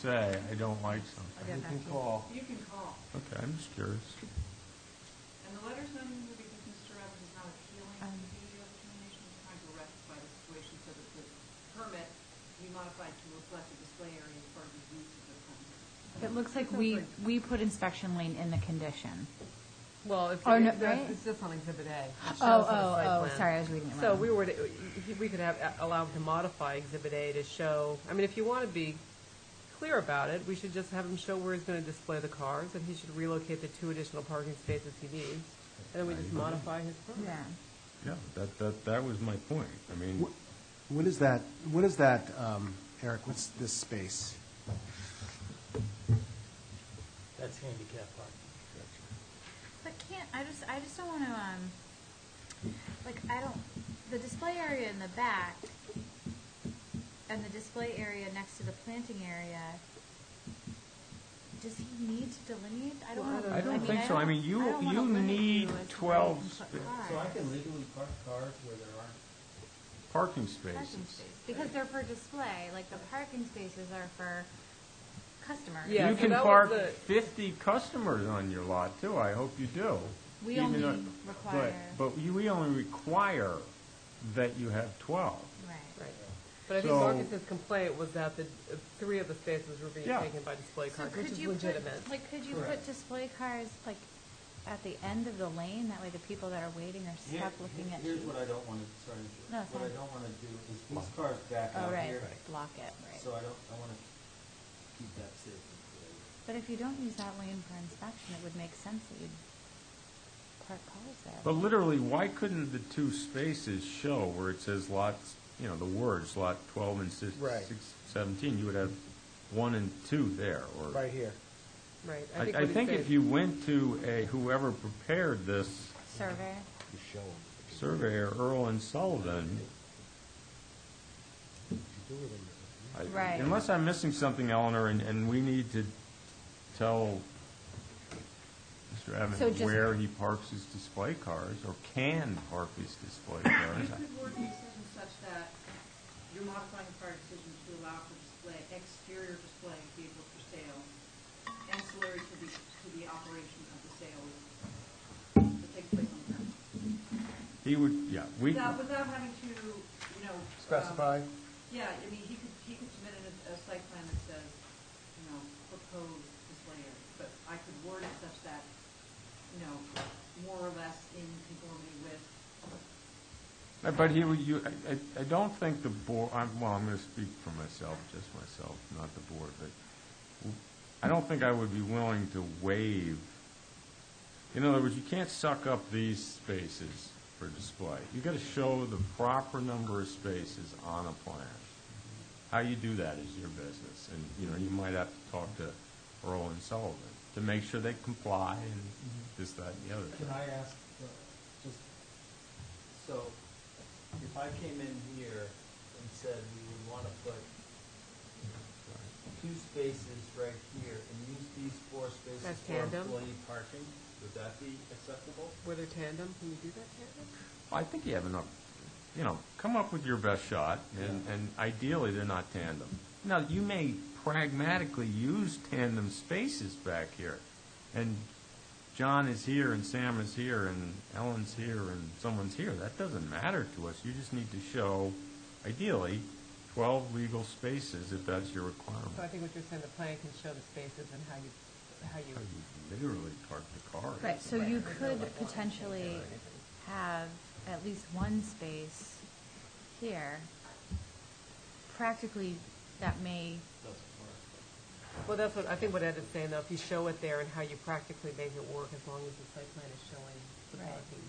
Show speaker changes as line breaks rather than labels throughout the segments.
say, I don't like something.
You
Yeah,
can
that's-
call.
You can call.
Okay, I'm just curious.
And the letter's not in here because Mr. Evans is not appealing
Um.
the DEO determination. He's trying to rectify the situation so that the permit be modified to reflect the display area as part of the use of the permit.
It looks like we, we put inspection lane in the condition.
Well, if,
Oh, no,
if that's-
right?
it's just on Exhibit A. It shows
Oh,
on the site
oh, oh,
plan.
sorry, I was reading it wrong.
So we were, to- we could have, allow him to modify Exhibit A to show, I mean, if you want to be clear about it, we should just have him show where he's going to display the cars, and he should relocate the two additional parking spaces he needs, and then we just modify his permit.
Yeah.
Yeah, that, that, that was my point. I mean,
What is that, what is that, um, Eric, what's this space?
That's handicap parking.
But can't, I just, I just don't wanna, um, like, I don't, the display area in the back and the display area next to the planting area, does he need to delineate? I don't know.
I don't
mean,
think so. I
don't-
mean,
I
you,
don't wanna
you
limit
need
as to where you
twelve
can
sp-
put cars.
So I can legally park cars where there
parking
aren't
Parking
spaces.
space, because they're for display, like, the parking spaces are for customers.
Yeah,
You
so
can
that was
park
the-
fifty customers on your lot too. I hope you do.
We
Even
only
though-
require,
But, but you- we only require that you have twelve.
right.
Right. But I think
So-
Marcus's complaint was that the, uh, three of the spaces were being
Yeah.
taken by display
So
cars,
could
which is
you put-
legitimate.
Like, could you put
Correct.
display cars, like, at the end of the lane? That way the people that are waiting are
Here-
stuck looking
here-
at you.
Here's what I don't want to, sorry, Julie.
No, it's
what I
fine.
don't want to do is these cars back
Oh,
out
right,
here,
block it, right.
so I don't, I want to keep that safe. and clear.
But if you don't use that lane for inspection, it would make sense that you'd park cars there.
But literally, why couldn't the two spaces show where it says lots, you know, the words lot twelve and six,
Right.
six, seventeen? You would have one and two there, or.
Right here.
Right.
I,
what
I
he
think
said-
if you went to a, whoever prepared this
Survey,
surveyor, Earl and Sullivan, I-
Right.
unless I'm missing something, Eleanor, and, and we need to tell Mr.
So
Evans
just-
where he parks his display cars, or can park his display cars.
You could word the decision such that you're modifying the prior decision to allow for display, exterior display of vehicles for sale, ancillary to the, to the operation of the sale that takes place on the ground.
He would, yeah, we,
Without, without having to, you know. um,
Specify.
Yeah, I mean, he could, he could submit a, a site plan that says, you know, proposed display area, but I could word it such that, you know, more or less in conformity with,
but he would, you, I- I, I don't think the board, I'm, well, I'm gonna speak for myself, just myself, not the board, but I don't think I would be willing to waive, in other words, you can't suck up these spaces for display. You gotta show the proper number of spaces on a plan. How you do that is your business, and, you know, you might have to talk to Earl and Sullivan to make sure they comply and this, that, and the other
Can
thing.
I ask, uh, just, so if I came in here and said we would want to put two spaces right here and use these four spaces
That's
for
tandem?
employee parking, would that be acceptable?
Were they tandem? Can you do that tandem?
I think you have enough, you know, come up with your best shot, and, and ideally, they're not tandem. Now, you may pragmatically use tandem spaces back here, and John is here, and Sam is here, and Ellen's here, and someone's here. That doesn't matter to us. You just need to show, ideally, twelve legal spaces if that's your requirement.
So I think what you're saying, the plan can show the spaces and how you, how you
How you Literally park the car.
right, so you could potentially have at least one space here. Practically, that may,
Doesn't work.
Well, that's what, I think what Ed is saying, though, if you show it there and how you practically make it work, as long as the site plan is showing the
Right.
parking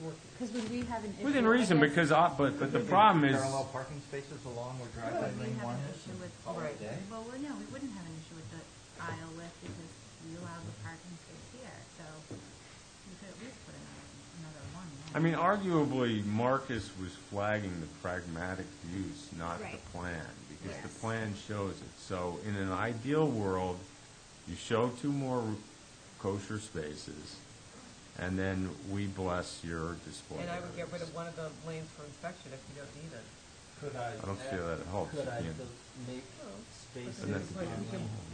working.
because would we have an issue?
Within
I
reason,
guess-
because, I- but, but the problem is.
Parallel parking spaces along where driveway
Would we
lane
have
one
an
is?
issue with-
All
Right.
day?
Well, we- no, we wouldn't have an issue with the aisle width because we allowed the parking space here, so we could at least put another, another one. in.
I mean, arguably, Marcus was flagging the pragmatic use, not the
Right.
plan, because the
Yes.
plan shows it. So in an ideal world, you show two more kosher spaces, and then we bless your display
And I would get rid
areas.
of one of the lanes for inspection if you don't need it.
Could I?
I don't feel that it helps.
Could
You
I
can't-
de- make spaces
And that's the
on
problem.